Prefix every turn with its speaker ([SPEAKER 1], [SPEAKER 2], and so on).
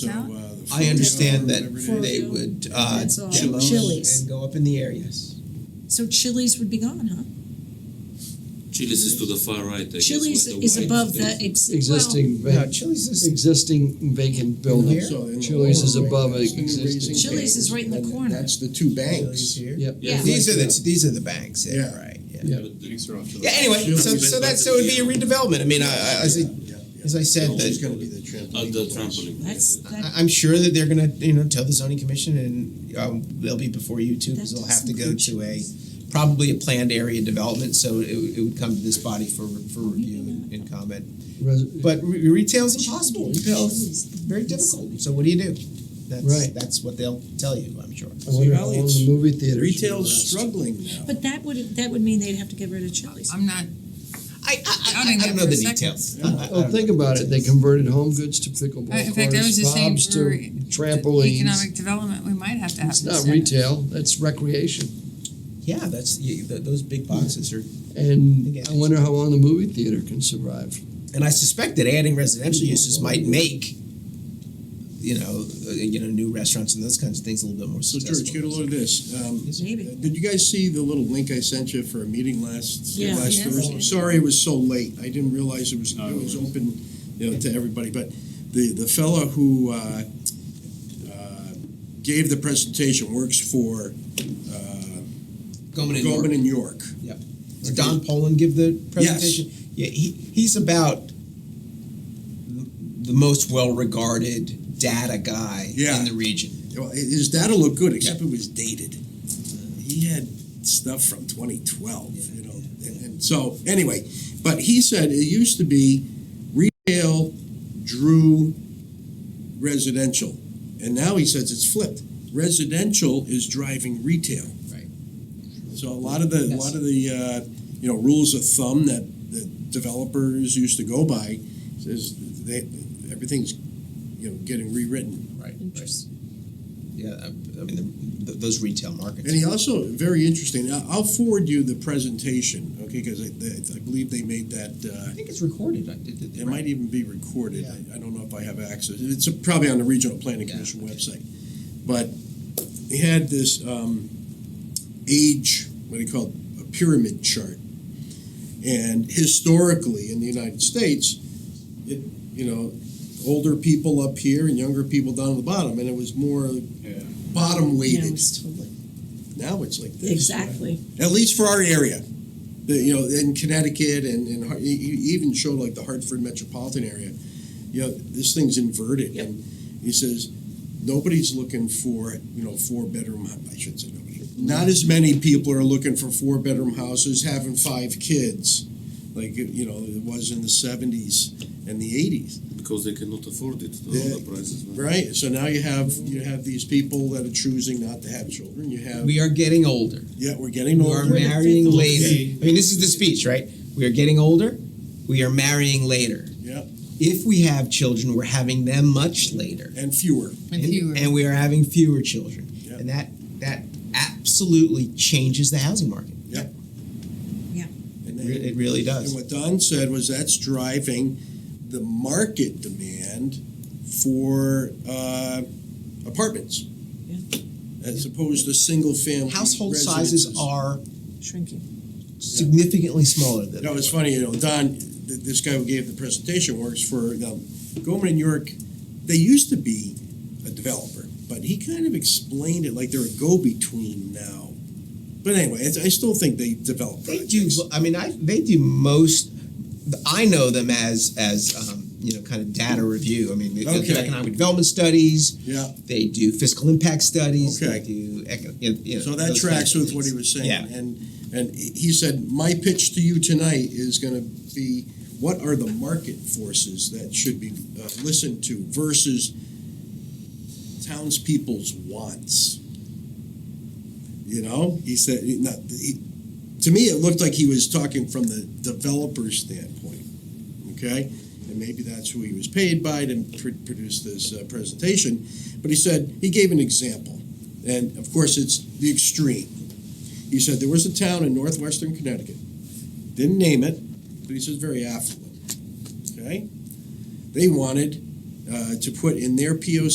[SPEAKER 1] So, uh,
[SPEAKER 2] Yeah.
[SPEAKER 1] the
[SPEAKER 3] I understand
[SPEAKER 1] food,
[SPEAKER 3] that
[SPEAKER 1] whatever it
[SPEAKER 2] For-
[SPEAKER 1] is.
[SPEAKER 3] they would uh,
[SPEAKER 2] That's all.
[SPEAKER 3] demo
[SPEAKER 2] Chili's.
[SPEAKER 3] and go up in the air. Yes,
[SPEAKER 2] So Chili's would be gone, huh?
[SPEAKER 4] Chili's is to the far right. I guess,
[SPEAKER 2] Chili's
[SPEAKER 4] where the
[SPEAKER 2] is
[SPEAKER 4] white
[SPEAKER 2] above the
[SPEAKER 4] space-
[SPEAKER 2] ex-
[SPEAKER 5] Existing
[SPEAKER 3] no,
[SPEAKER 5] vac-
[SPEAKER 3] Chili's is
[SPEAKER 5] existing vacant building.
[SPEAKER 3] Here?
[SPEAKER 1] So in the
[SPEAKER 5] Chili's is
[SPEAKER 1] lower right,
[SPEAKER 5] above
[SPEAKER 1] that's the new
[SPEAKER 5] existing.
[SPEAKER 1] raising
[SPEAKER 2] Chili's is right in the
[SPEAKER 1] And
[SPEAKER 2] corner.
[SPEAKER 1] That's the two
[SPEAKER 3] Chili's
[SPEAKER 1] banks.
[SPEAKER 3] here.
[SPEAKER 5] Yep.
[SPEAKER 4] Yeah.
[SPEAKER 3] These are the these are the banks. Yeah,
[SPEAKER 1] Yeah.
[SPEAKER 3] right. Yeah.
[SPEAKER 5] Yeah.
[SPEAKER 3] Yeah. Anyway, so so that so it'd be a redevelopment. I mean, I, I, as I as I said,
[SPEAKER 1] It's
[SPEAKER 3] that
[SPEAKER 1] gonna be the trampoline.
[SPEAKER 4] At Uh, the
[SPEAKER 1] place.
[SPEAKER 4] trampoline.
[SPEAKER 2] That's that.
[SPEAKER 3] I- I'm sure that they're gonna you know tell the zoning commission and um, they'll be before you too
[SPEAKER 2] that
[SPEAKER 3] because they'll
[SPEAKER 2] does
[SPEAKER 3] have to go
[SPEAKER 2] include
[SPEAKER 3] to a
[SPEAKER 2] Chili's.
[SPEAKER 3] probably a planned area development. So it, would- it would come to this body for for review and, and comment.
[SPEAKER 5] Res-
[SPEAKER 3] But re- retail's impossible. Retail
[SPEAKER 2] Chili's.
[SPEAKER 3] is very difficult. So what do you do? That's,
[SPEAKER 5] Right.
[SPEAKER 3] That's what they'll tell you. I'm sure.
[SPEAKER 5] I wonder how
[SPEAKER 1] Valley,
[SPEAKER 5] long
[SPEAKER 1] it's-
[SPEAKER 5] the movie theater.
[SPEAKER 1] Retail's struggling now.
[SPEAKER 2] But that would that would mean they'd have to get rid of Chili's.
[SPEAKER 6] I'm not,
[SPEAKER 3] I I, I,
[SPEAKER 6] Counting
[SPEAKER 3] I don't know
[SPEAKER 6] that for
[SPEAKER 3] the
[SPEAKER 6] a second.
[SPEAKER 3] details. I- I
[SPEAKER 5] Well,
[SPEAKER 3] don't
[SPEAKER 5] think
[SPEAKER 3] know.
[SPEAKER 5] about it. They converted home goods to pickleball
[SPEAKER 6] I- in
[SPEAKER 5] courts,
[SPEAKER 6] fact, I was just saying
[SPEAKER 5] pubs
[SPEAKER 6] for
[SPEAKER 5] to trampolines.
[SPEAKER 6] economic development, we might have to have
[SPEAKER 5] It's
[SPEAKER 6] this
[SPEAKER 5] not
[SPEAKER 6] in it.
[SPEAKER 5] retail. That's recreation.
[SPEAKER 3] Yeah, that's you, th- those big boxes are,
[SPEAKER 5] And
[SPEAKER 3] Again.
[SPEAKER 5] I wonder how long the movie theater can survive.
[SPEAKER 3] and I suspect that adding residential uses might make, you know, uh, you know, new restaurants and those kinds of things a little bit more
[SPEAKER 1] So
[SPEAKER 3] successful.
[SPEAKER 1] George, get a load of this. Um,
[SPEAKER 2] Maybe.
[SPEAKER 1] Did you guys see the little link I sent you for a meeting last,
[SPEAKER 2] Yeah.
[SPEAKER 1] last
[SPEAKER 6] Yes.
[SPEAKER 1] Thursday? Sorry it was so late. I didn't realize it was, it was open, you know, to everybody. But the, the fellow who, uh, uh, gave the presentation works for, uh,
[SPEAKER 3] Goldman and
[SPEAKER 1] Goldman
[SPEAKER 3] York.
[SPEAKER 1] and York.
[SPEAKER 3] Did Don Poland give the presentation? Yeah, he, he's about the, the most well-regarded data guy
[SPEAKER 1] Yeah.
[SPEAKER 3] in the region.
[SPEAKER 1] Well, his data looked good, except it was dated. Uh, He had stuff from 2012, you know. And, and so, anyway, but he said it used to be retail drew residential, and now he says it's flipped. Residential is driving retail.
[SPEAKER 3] Right.
[SPEAKER 1] So a lot of the a lot of the uh, you know rules of thumb that that developers used to go by says they everything's you know getting rewritten.
[SPEAKER 3] Right. Yeah, I, I mean, the, th those retail markets.
[SPEAKER 1] And he also very interesting. I- I'll forward you the presentation, okay? Because I, I- I believe they made that. Uh,
[SPEAKER 3] I think it's recorded. I did, did,
[SPEAKER 1] it might even be recorded.
[SPEAKER 3] Yeah.
[SPEAKER 1] I, I don't know if I have access. It's probably on the Regional Planning
[SPEAKER 3] Yeah,
[SPEAKER 1] Commission website. But he had this um, age, what do you call it, a pyramid chart. And historically in the United States, it, you know, older people up here and younger people down at the bottom. And it was more bottom
[SPEAKER 2] No,
[SPEAKER 1] weighted.
[SPEAKER 2] it's totally
[SPEAKER 1] Now it's like this
[SPEAKER 2] exactly.
[SPEAKER 1] at least for our area. The, you know, in Connecticut and, and Har- you you even showed like the Hartford metropolitan area, you know, this thing's inverted. And he says, nobody's looking for, you know, four bedroom, I shouldn't say nobody. Not as many people are looking for four bedroom houses, having five kids, like, you know, it was in the 70s and the 80s.
[SPEAKER 4] because they cannot afford it. The,
[SPEAKER 1] Yeah.
[SPEAKER 4] the prices. man.
[SPEAKER 1] Right. So now you have you have these people that are choosing not to have children. You have
[SPEAKER 3] we are getting older.
[SPEAKER 1] yeah, we're getting
[SPEAKER 3] We are
[SPEAKER 1] older.
[SPEAKER 3] marrying
[SPEAKER 2] fifth
[SPEAKER 3] later. I mean, this is the speech, right? We are getting older. We are marrying later.
[SPEAKER 1] Yep.
[SPEAKER 3] If we have children, we're having them much later,
[SPEAKER 1] and fewer.
[SPEAKER 6] And fewer.
[SPEAKER 3] and we are having fewer children,
[SPEAKER 1] Yep.
[SPEAKER 3] and that that absolutely changes the housing market.
[SPEAKER 1] And
[SPEAKER 3] It
[SPEAKER 1] then-
[SPEAKER 3] re- It really
[SPEAKER 1] And
[SPEAKER 3] does.
[SPEAKER 1] what Don said was that's driving the market demand for uh, apartments.
[SPEAKER 2] Yeah.
[SPEAKER 1] As opposed to single family.
[SPEAKER 3] Household sizes
[SPEAKER 1] residences.
[SPEAKER 3] are
[SPEAKER 2] Shrinking.
[SPEAKER 3] significantly smaller than.
[SPEAKER 1] No, it's funny, you know, Don, th- this guy who gave the presentation works for, um, Goldman and York, they used to be a developer, but he kind of explained it like they're a go-between now. But anyway, it's- I still think they develop
[SPEAKER 3] They
[SPEAKER 1] projects.
[SPEAKER 3] do. I mean, I they do most. I know them as as um, you know, kind of data review. I mean, they, they do
[SPEAKER 1] Okay.
[SPEAKER 3] economic development studies.
[SPEAKER 1] Yeah.
[SPEAKER 3] They do fiscal impact studies.
[SPEAKER 1] Okay.
[SPEAKER 3] They do. eco- you know, you know,
[SPEAKER 1] So that
[SPEAKER 3] those
[SPEAKER 1] tracks
[SPEAKER 3] kinds
[SPEAKER 1] with
[SPEAKER 3] of
[SPEAKER 1] what he
[SPEAKER 3] things.
[SPEAKER 1] was saying.
[SPEAKER 3] Yeah.
[SPEAKER 1] And, and he he said, my pitch to you tonight is gonna be, what are the market forces that should be uh, listened to versus townspeople's wants? You know, he said, he- not, he, to me, it looked like he was talking from the developer's standpoint, okay? And maybe that's who he was paid by to pr- produce this uh, presentation. But he said, he gave an example. And of course, it's the extreme. He said there was a town in northwestern Connecticut, didn't name it, but he says very affluent. Okay? They wanted uh, to put in their POC